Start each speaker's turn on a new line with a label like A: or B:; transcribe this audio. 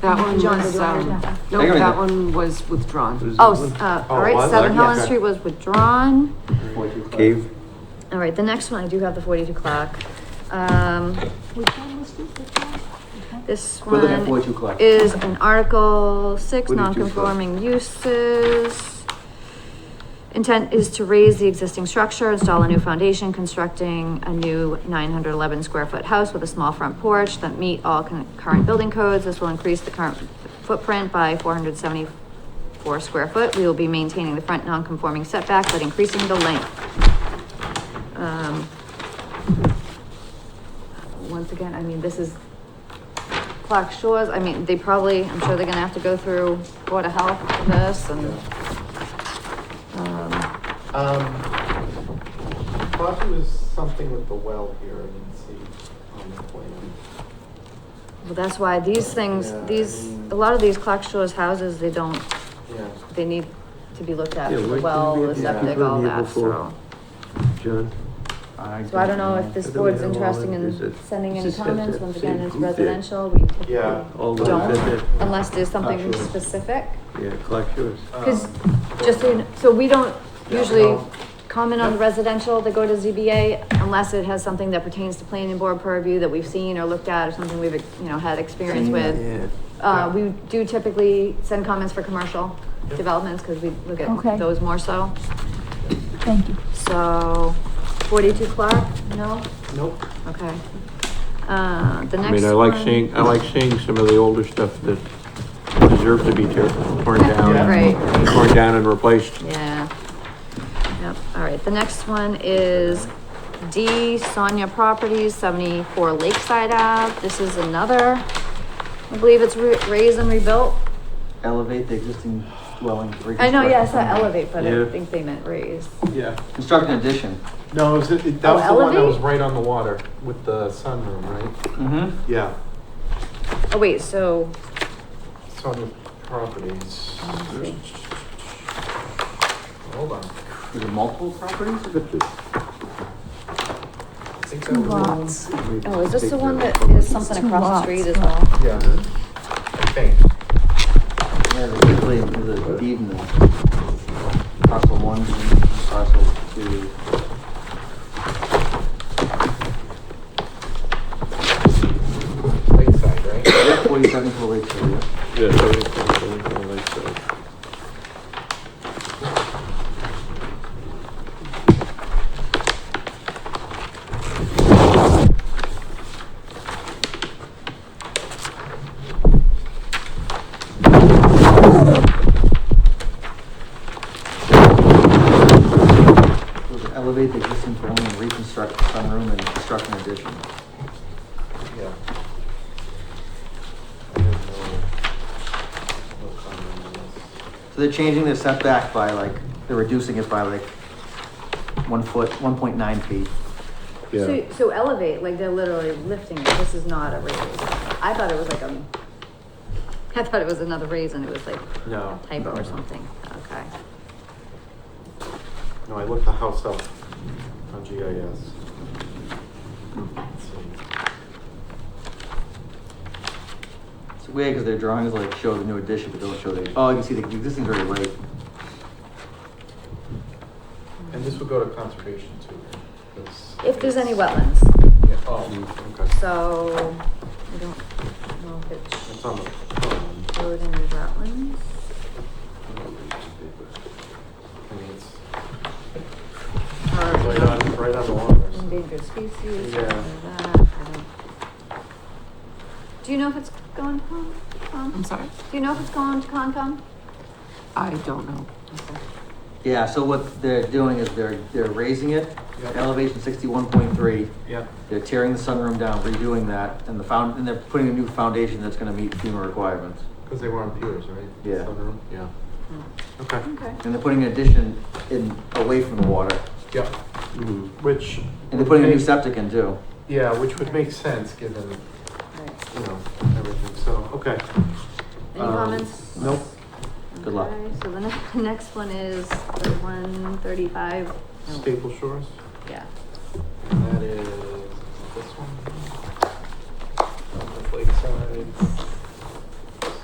A: That one
B: John,
A: was,
B: did you want to-
A: um, no,
C: Hang on a
A: that
C: minute.
A: one was withdrawn.
B: Oh, s- uh, all
C: Oh,
B: right,
C: I
B: seven
C: like-
B: Helen
C: yeah.
B: Street was withdrawn.
C: Cave,
B: All right, the next one, I do have the forty-two clock. Um, this
D: We're looking at
B: one
D: 42 o'clock.
B: is an Article Six,
C: 42 clock.
B: non-conforming uses. Intent is to raise the existing structure, install a new foundation, constructing a new nine hundred eleven square foot house with a small front porch that meet all con- current building codes. This will increase the current footprint by four hundred seventy-four square foot. We will be maintaining the front non-conforming setback, but increasing the length. Um, Once again, I mean, this is Clark Shores, I mean, they probably, I'm sure they're gonna have to go through Board of Health for this and. um,
E: Um, I thought there was something with the well here, I didn't see on the plan.
B: Well, that's why these things,
E: Yeah, I
B: these,
E: mean-
B: a lot of these Clark Shores houses, they don't,
E: Yeah.
B: they need to be looked at,
F: Yeah, why
B: the
F: couldn't
B: well,
F: we
B: the
F: have
E: these
B: septic,
F: people in
B: all
F: here
B: that,
F: before?
B: so.
F: John.
B: So I don't know if this
F: I don't
B: board's
F: know,
B: interested
F: is
B: in
F: it-
B: sending
F: is
B: any
F: this at
B: comments,
F: that
B: once
F: same
B: again, it's
F: group there?
B: residential, we typically
E: Yeah.
F: All those at
B: don't,
F: that-
B: unless there's something
F: Clark Shores.
B: specific.
F: Yeah, Clark Shores.
B: Because,
E: Um,
B: just so you know, so we don't
E: Yeah,
B: usually
E: no.
B: comment on the residential that go to ZBA unless it has something that pertains to planning board purview that we've seen or looked at or something we've, you know, had experience
E: Seen,
B: with.
F: Yeah.
B: Uh, we do typically send comments for commercial
E: Yep.
B: developments because we look
G: Okay.
B: at those more so.
G: Thank you.
B: So forty-two Clark, no?
E: Nope.
B: Okay. Uh, the next one.
F: I mean, I like seeing, I like seeing some of the older stuff that deserve to be tear- torn down.
E: Yeah.
B: Right.
F: Torn down and replaced.
B: Yeah. Yep, all right, the next one is D Sonia Properties, seventy-four Lakeside Ave. This is another, I believe it's re- raised and rebuilt.
D: Elevate the existing dwelling.
B: I know, yeah, it's not elevate, but I
F: Yeah.
B: think they meant raise.
E: Yeah.
D: Construct an addition.
E: No, it was, it-
B: Oh,
E: that was the one that
B: elevate?
E: was right on the water with the sunroom, right?
D: Mm-hmm.
E: Yeah.
B: Oh, wait, so,
E: Sonia Properties.
B: let's see.
E: Hold on.
D: Is it multiple properties?
E: I think that was-
G: Lots.
B: oh, is this the one that is something
G: Two
B: across the
G: lots,
B: street as
G: yeah.
B: well?
E: Yeah. I think.
D: Yeah, there's usually, there's a deed in the parcel one, and parcel two.
E: Lakeside, right?
D: Yeah, Forty-seven to Lakeshore, yeah.
F: Yeah, so it's- it's only kinda like so.
D: So to Elevate the existing dwelling and reconstruct the sunroom and construct an addition.
E: Yeah. I have no- no comment on this.
D: So they're changing the setback by like, they're reducing it by like one foot, one point nine feet.
F: Yeah.
B: So, so elevate, like they're literally lifting it, this is not a raise. I thought it was like a, I thought it was another raise and it was like
E: No.
B: a typo or something, okay.
E: No, I looked the house up on GIS. Let's see.
D: It's weird because their drawings like show the new addition, but don't show the, oh, you can see the existing's already late.
E: And this would go to conservation too, right? 'Cause
B: If there's any
E: it's-
B: wetlands,
E: Yeah, oh, okay.
B: so I don't know if
E: It's
B: it's
E: on the. um,
B: showed any wetlands.
E: I mean, it's
B: or um,
E: right on, right on the water.
B: Endangered species,
E: Yeah.
B: something like that, I don't. Do you know if it's going to Con,
A: I'm
B: Con?
A: sorry,
B: Do you know if it's going to Concom?
A: I don't know.
D: Yeah, so what they're doing is they're, they're raising it,
E: Yep.
D: elevation sixty-one point three.
E: Yeah.
D: They're tearing the sunroom down, redoing that, and the found, and they're putting a new foundation that's gonna meet FEMA requirements.
E: Because they were on piers, right?
D: Yeah.
E: Sunroom? Yeah.
B: Hmm.
E: Okay.
B: Okay.
D: And they're putting an addition in, away from the water.
E: Yeah.
F: Mhm.
E: Which.
D: And they're putting a new
E: would make-
D: septic in too.
E: Yeah, which would make sense given, you
B: Right.
E: know, everything. So, okay.
B: Any
E: Um,
B: comments?
E: Nope.
D: Good luck.
B: Okay, So the next, next one is the one thirty-five.
E: Staple Shores.
B: Yeah.
E: And that is.